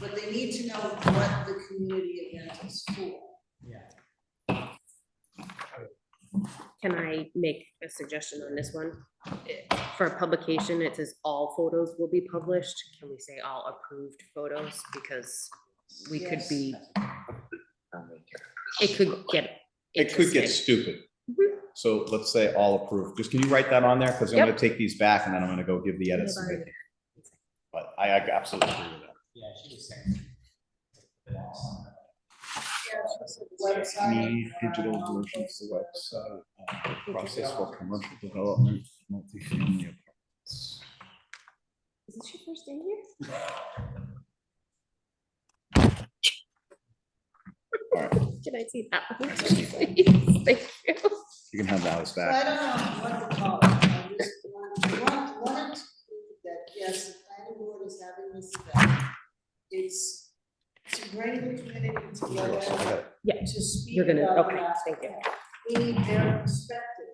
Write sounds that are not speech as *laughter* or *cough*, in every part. but they need to know what the community event is for. Can I make a suggestion on this one? For publication, it says all photos will be published. Can we say all approved photos? Because we could Yes. be, it could get. It could get interesting. stupid. Mhm. So let's say all approved. Just can you write that on there? Because I'm gonna take these back and then I'm gonna go give the edits. to Vicky. But I I absolutely agree with that. Yeah, she was saying. Website, Need digital uh, versions of the website, uh, process for commercial development, multifamily apartments. Is this your first day here? All right, Can I see that one? please? *laughs* Thank you. you can have Alice So I back. don't know what to call it, I just want, want, wanted to prove that, yes, the planning board is having this event. It's to bring the community together, Yeah, to speak you're gonna- about okay, the master thank you. plan. We need their perspective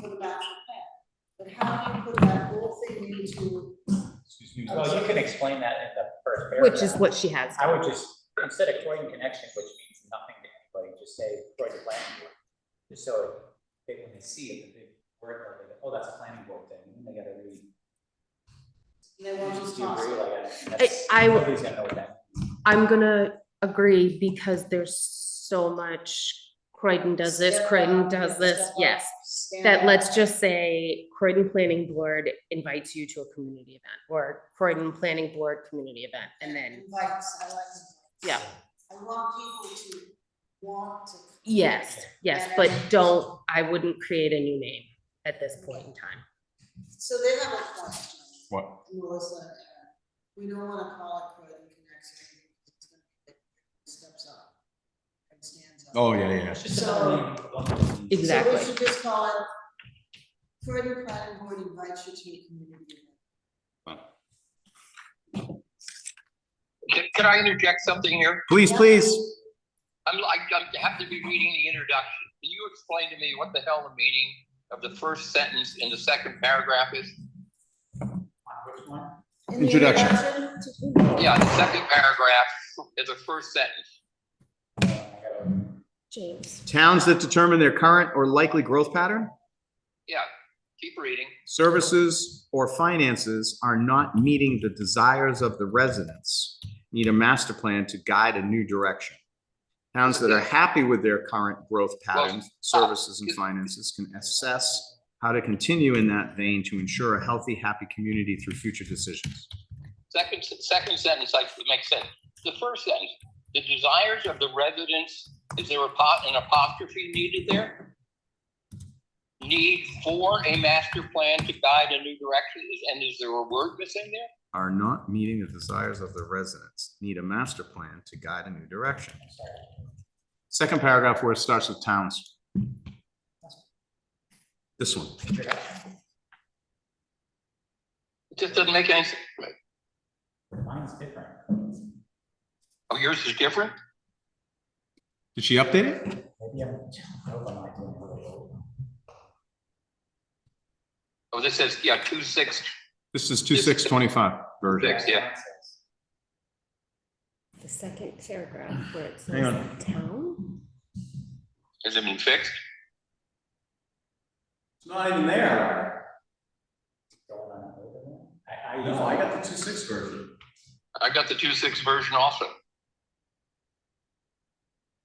for the master plan, but how do you put that whole thing into, Well, you can explain that in the first paragraph. which is what she has. I would just, instead of Croydon connection, which means nothing to anybody, just say Croydon planning board. Just so they, when they see it, the big word, like, oh, that's a planning board thing, and they gotta read. they want Just to do you toss agree, it. like, that's- I- I would- Nobody's gonna know what that. means. I'm gonna agree because there's so much Croydon does this, Step Croydon up, does step this, up, yes. stand That out. let's just say Croydon Planning Board invites you to a community event or Croydon Planning Board community event and then, Invites, I like invites. Yeah. I want people to want to. yes, yes, but don't, I wouldn't create a new name at this point in time. So they have a question, What? Melissa and Aaron. We don't wanna call it Croydon Connection. It's gonna be Steps up. and stands up. Oh, yeah, yeah. It's just So- another name. Exactly. So we should just call it Croydon Planning Board invites you to a community event. Can, can I interject something here? Please, Yeah. please. I'm, I I have to be reading the introduction. Can you explain to me what the hell the meaning of the first sentence in the second paragraph is? Uh, Which one? In the Introduction. Yeah, the second paragraph is the first sentence. Uh, I gotta- James. Towns that determine their current or likely growth pattern, Yeah, keep reading. services, or finances are not meeting the desires of the residents need a master plan to guide a new direction. Towns that are happy with their current growth patterns, services, and finances can assess how to continue in that vein to ensure a healthy, happy community through future decisions. Second, second sentence, like, it makes sense. The first sentence, the desires of the residents, is there a pot, an apostrophe needed there? Need for a master plan to guide a new direction, is, and is there a word missing there? Are not meeting the desires of the residents need a master plan to guide a new direction. Second paragraph where it starts with towns. This one. It just doesn't make any sense. Mine's different. Oh, yours is different? Did she update it? Maybe I'm, I hope I'm not doing it really old. Oh, this says, yeah, two six, This is two six twenty-five version. Six. yeah. The second paragraph where it Hang on. town. has it been fixed? It's not even there. Going on over there. I, I. No, I got the two six version. I got the two six version also.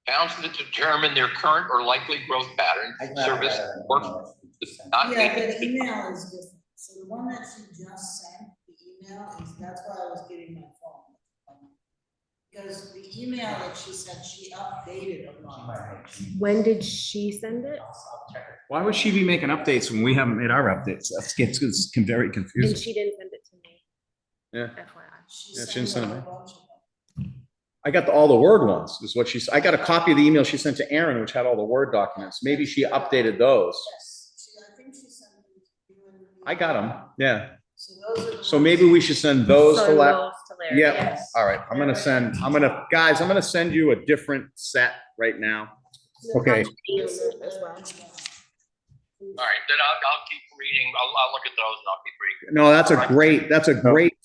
Towns that determine their current or likely growth pattern, I got it service, rather than work, email. does not Yeah, but meet. email is different. So the one that she just sent, the email is, that's why I was getting my phone. Because the email that she sent, she updated a She lot. might make me- When did she send it? I'll, I'll check it. Why would she be making updates when we haven't made our updates? That's gets, it's con- very And confusing. she didn't send it to me. Yeah. FYI. She Yeah, she sent didn't send out it. a bunch of them. I got the- all the word ones, is what she's, I got a copy of the email she sent to Aaron, which had all the word documents. Maybe she updated those. Yes, she, I think she sent them to you and me. I got them, yeah. So those are the. So maybe we should send those to So La- those to Larry, Yeah. yes. All right, I'm gonna send, I'm gonna, guys, I'm gonna send you a different set right now. Okay. As well. All right, then I'll, I'll keep reading. I'll, I'll look at those and I'll keep reading. No, that's a great, that's a great